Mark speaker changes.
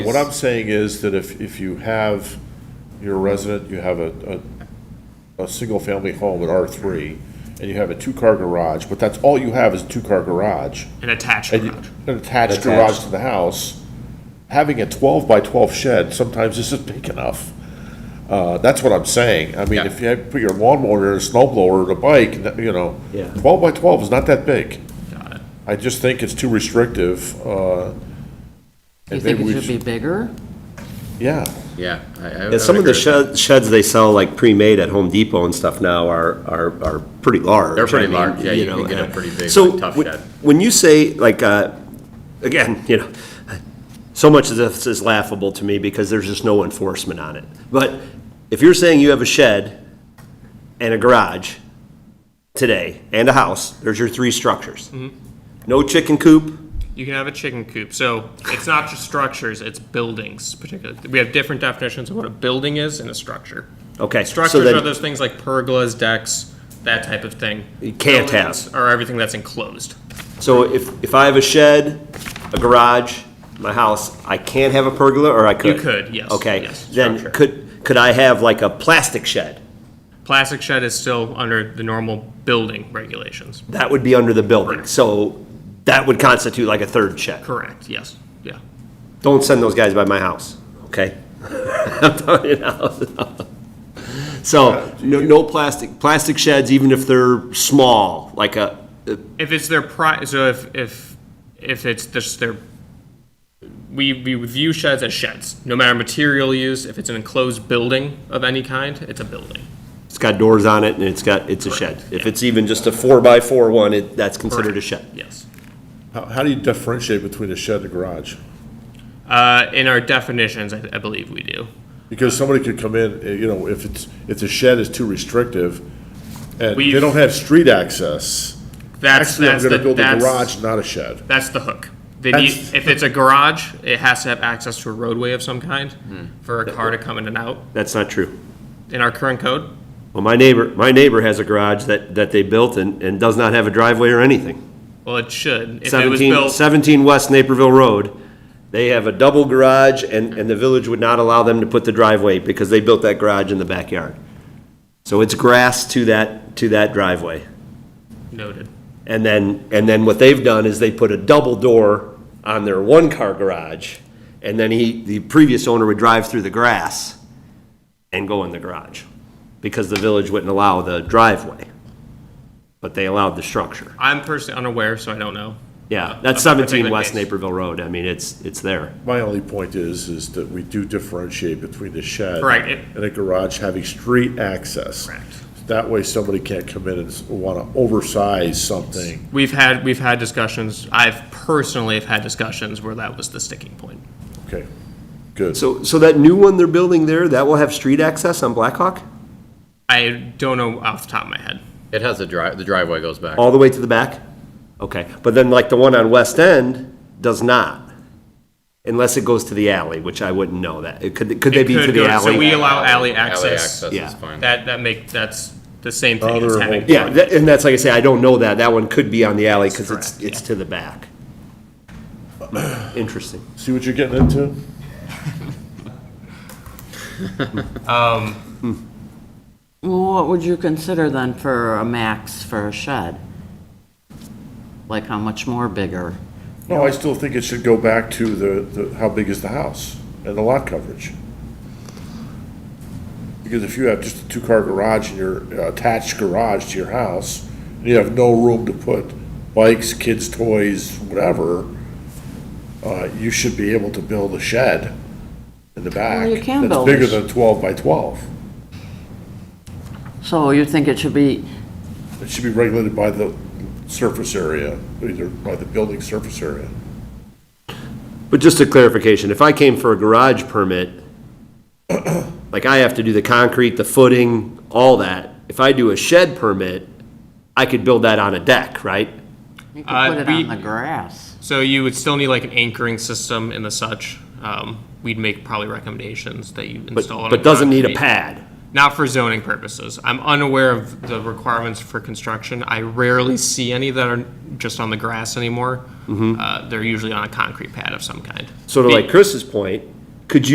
Speaker 1: What I'm saying is that if, if you have, your resident, you have a, a, a single-family home at R3, and you have a two-car garage, but that's all you have is a two-car garage,
Speaker 2: An attached
Speaker 1: and you-
Speaker 2: garage.
Speaker 1: an attached garage to the house, having a 12 by 12 shed sometimes isn't big enough. Uh, that's what I'm saying. I mean,
Speaker 2: Yeah.
Speaker 1: if you had, put your lawnmower, and a snowblower, and a bike, that- you know,
Speaker 3: Yeah.
Speaker 1: 12 by 12 is not that big.
Speaker 2: Got it.
Speaker 1: I just think it's too restrictive, uh.
Speaker 4: You
Speaker 1: and
Speaker 4: think
Speaker 1: maybe we
Speaker 4: it should be bigger?
Speaker 1: Yeah.
Speaker 2: Yeah. I- I- I
Speaker 3: Yeah,
Speaker 2: would
Speaker 3: some of the
Speaker 2: agree with
Speaker 3: shed- sheds they sell like pre-made at Home Depot and stuff now are, are, are pretty large.
Speaker 2: They're pretty
Speaker 3: I mean,
Speaker 2: large, yeah, you
Speaker 3: know,
Speaker 2: can get a
Speaker 3: uh,
Speaker 2: pretty big,
Speaker 3: so
Speaker 2: like, tough
Speaker 3: when-
Speaker 2: shed.
Speaker 3: When you say, like, uh, again, you know, so much of this is laughable to me because there's just no enforcement on it. But if you're saying you have a shed and a garage today and a house, there's your three structures.
Speaker 2: Mm-hmm.
Speaker 3: No chicken coop,
Speaker 5: You can have a chicken coop. So it's not just structures, it's buildings particularly. We have different definitions of what a building is and a structure.
Speaker 3: okay. so
Speaker 5: Structures
Speaker 3: then-
Speaker 5: are those things like pergolas, decks, that type of thing.
Speaker 3: You can't
Speaker 5: Buildings
Speaker 3: have.
Speaker 5: Are everything that's enclosed.
Speaker 3: So if, if I have a shed, a garage, my house, I can't have a pergola, or I could?
Speaker 5: You could, yes,
Speaker 3: Okay,
Speaker 5: yes,
Speaker 3: then
Speaker 5: structure.
Speaker 3: could, could I have like a plastic shed?
Speaker 5: Plastic shed is still under the normal building regulations.
Speaker 3: That would be under the building, so that would constitute like a third shed.
Speaker 5: Correct, yes, yeah.
Speaker 3: Don't send those guys by my house, okay? I'm telling you now. So, no, no plastic, plastic sheds, even if they're small, like a,
Speaker 5: If it's their pri, so if, if, if it's just their, we, we view sheds as sheds, no matter material use, if it's an enclosed building of any kind, it's a building.
Speaker 3: it's got doors on it and it's got, it's a shed. If it's even just a four-by-four one, it, that's considered a shed.
Speaker 5: Yes.
Speaker 1: How, how do you differentiate between a shed and a garage?
Speaker 5: Uh, in our definitions, I, I believe we do.
Speaker 1: Because somebody could come in, uh, you know, if it's, if the shed is too restrictive, and they
Speaker 5: We've-
Speaker 1: don't have street access,
Speaker 5: That's
Speaker 1: actually, I'm
Speaker 5: that's the
Speaker 1: gonna build a
Speaker 5: that's,
Speaker 1: garage, not a shed.
Speaker 5: That's the hook. They need,
Speaker 1: That's-
Speaker 5: if it's a garage, it has to have access to a roadway of some kind
Speaker 3: Hmm.
Speaker 5: for a car to come in and out.
Speaker 3: That's not true.
Speaker 5: In our current code,
Speaker 3: Well, my neighbor, my neighbor has a garage that, that they built and, and does not have a driveway or anything.
Speaker 5: well, it should. If it was
Speaker 3: 17,
Speaker 5: built,
Speaker 3: 17 West Naperville Road, they have a double garage and, and the village would not allow them to put the driveway because they built that garage in the backyard. So it's grass to that, to that driveway.
Speaker 5: noted.
Speaker 3: And then, and then what they've done is they put a double door on their one-car garage. And then he, the previous owner would drive through the grass and go in the garage because the village wouldn't allow the driveway. But they allowed the structure.
Speaker 5: I'm personally unaware, so I don't know.
Speaker 3: Yeah, that's
Speaker 5: Of the
Speaker 3: seventeen
Speaker 5: particular
Speaker 3: West
Speaker 5: case.
Speaker 3: Naperville Road. I mean, it's, it's there.
Speaker 1: My only point is, is that we do differentiate between the shed.
Speaker 5: Correct, it-
Speaker 1: And a garage having street access.
Speaker 5: Correct.
Speaker 1: That way somebody can't come in and s- wanna oversize something.
Speaker 5: We've had we've had discussions. I've personally have had discussions where that was the sticking point.
Speaker 1: Okay, good.
Speaker 3: So, so that new one they're building there, that will have street access on Blackhawk?
Speaker 5: I don't know off the top of my head.
Speaker 2: It has a drive, the driveway goes back.
Speaker 3: All the way to the back? Okay, but then like the one on West End does not, unless it goes to the alley, which I wouldn't know that. It Could, could they
Speaker 5: It
Speaker 3: be to
Speaker 5: could
Speaker 3: the
Speaker 5: go- So we
Speaker 3: alley?
Speaker 5: allow alley
Speaker 2: Alley
Speaker 5: access.
Speaker 2: access
Speaker 3: Yeah.
Speaker 2: is fine.
Speaker 5: That that make that's the same thing as
Speaker 1: Other
Speaker 5: having.
Speaker 3: Yeah, that- and that's like I say, I don't know that. That one could be on the alley because it's,
Speaker 5: Correct,
Speaker 3: it's to the back. Interesting.
Speaker 1: See what you're getting into?
Speaker 4: Well, what would you consider then for a max for a shed? Like how much more bigger?
Speaker 1: No, I still think it should go back to the, the, how big is the house and the lot coverage? Because if you have just a two-car garage and your attached garage to your house, and you have no room to put bikes, kids' toys, whatever, uh, you should be able to build a shed in the back.
Speaker 4: you can build a
Speaker 1: That's bigger
Speaker 4: sh-
Speaker 1: than twelve by twelve.
Speaker 4: So you think it should be,
Speaker 1: It should be regulated by the surface area, either by the building surface area.
Speaker 3: But just a clarification, if I came for a garage permit, like I have to do the concrete, the footing, all that. If I do a shed permit, I could build that on a deck, right?
Speaker 4: you could
Speaker 5: Uh,
Speaker 4: put it
Speaker 5: we-
Speaker 4: on the grass.
Speaker 5: So you would still need like an anchoring system and the such. Um, we'd make probably recommendations that you
Speaker 3: But,
Speaker 5: install. on
Speaker 3: but doesn't need a
Speaker 5: concrete.
Speaker 3: pad.
Speaker 5: Not for zoning purposes. I'm unaware of the requirements for construction. I rarely see any that are just on the grass
Speaker 3: Mm-hmm.
Speaker 5: anymore. Uh, they're usually on a concrete pad of some kind.
Speaker 3: So to like Chris's point, could you?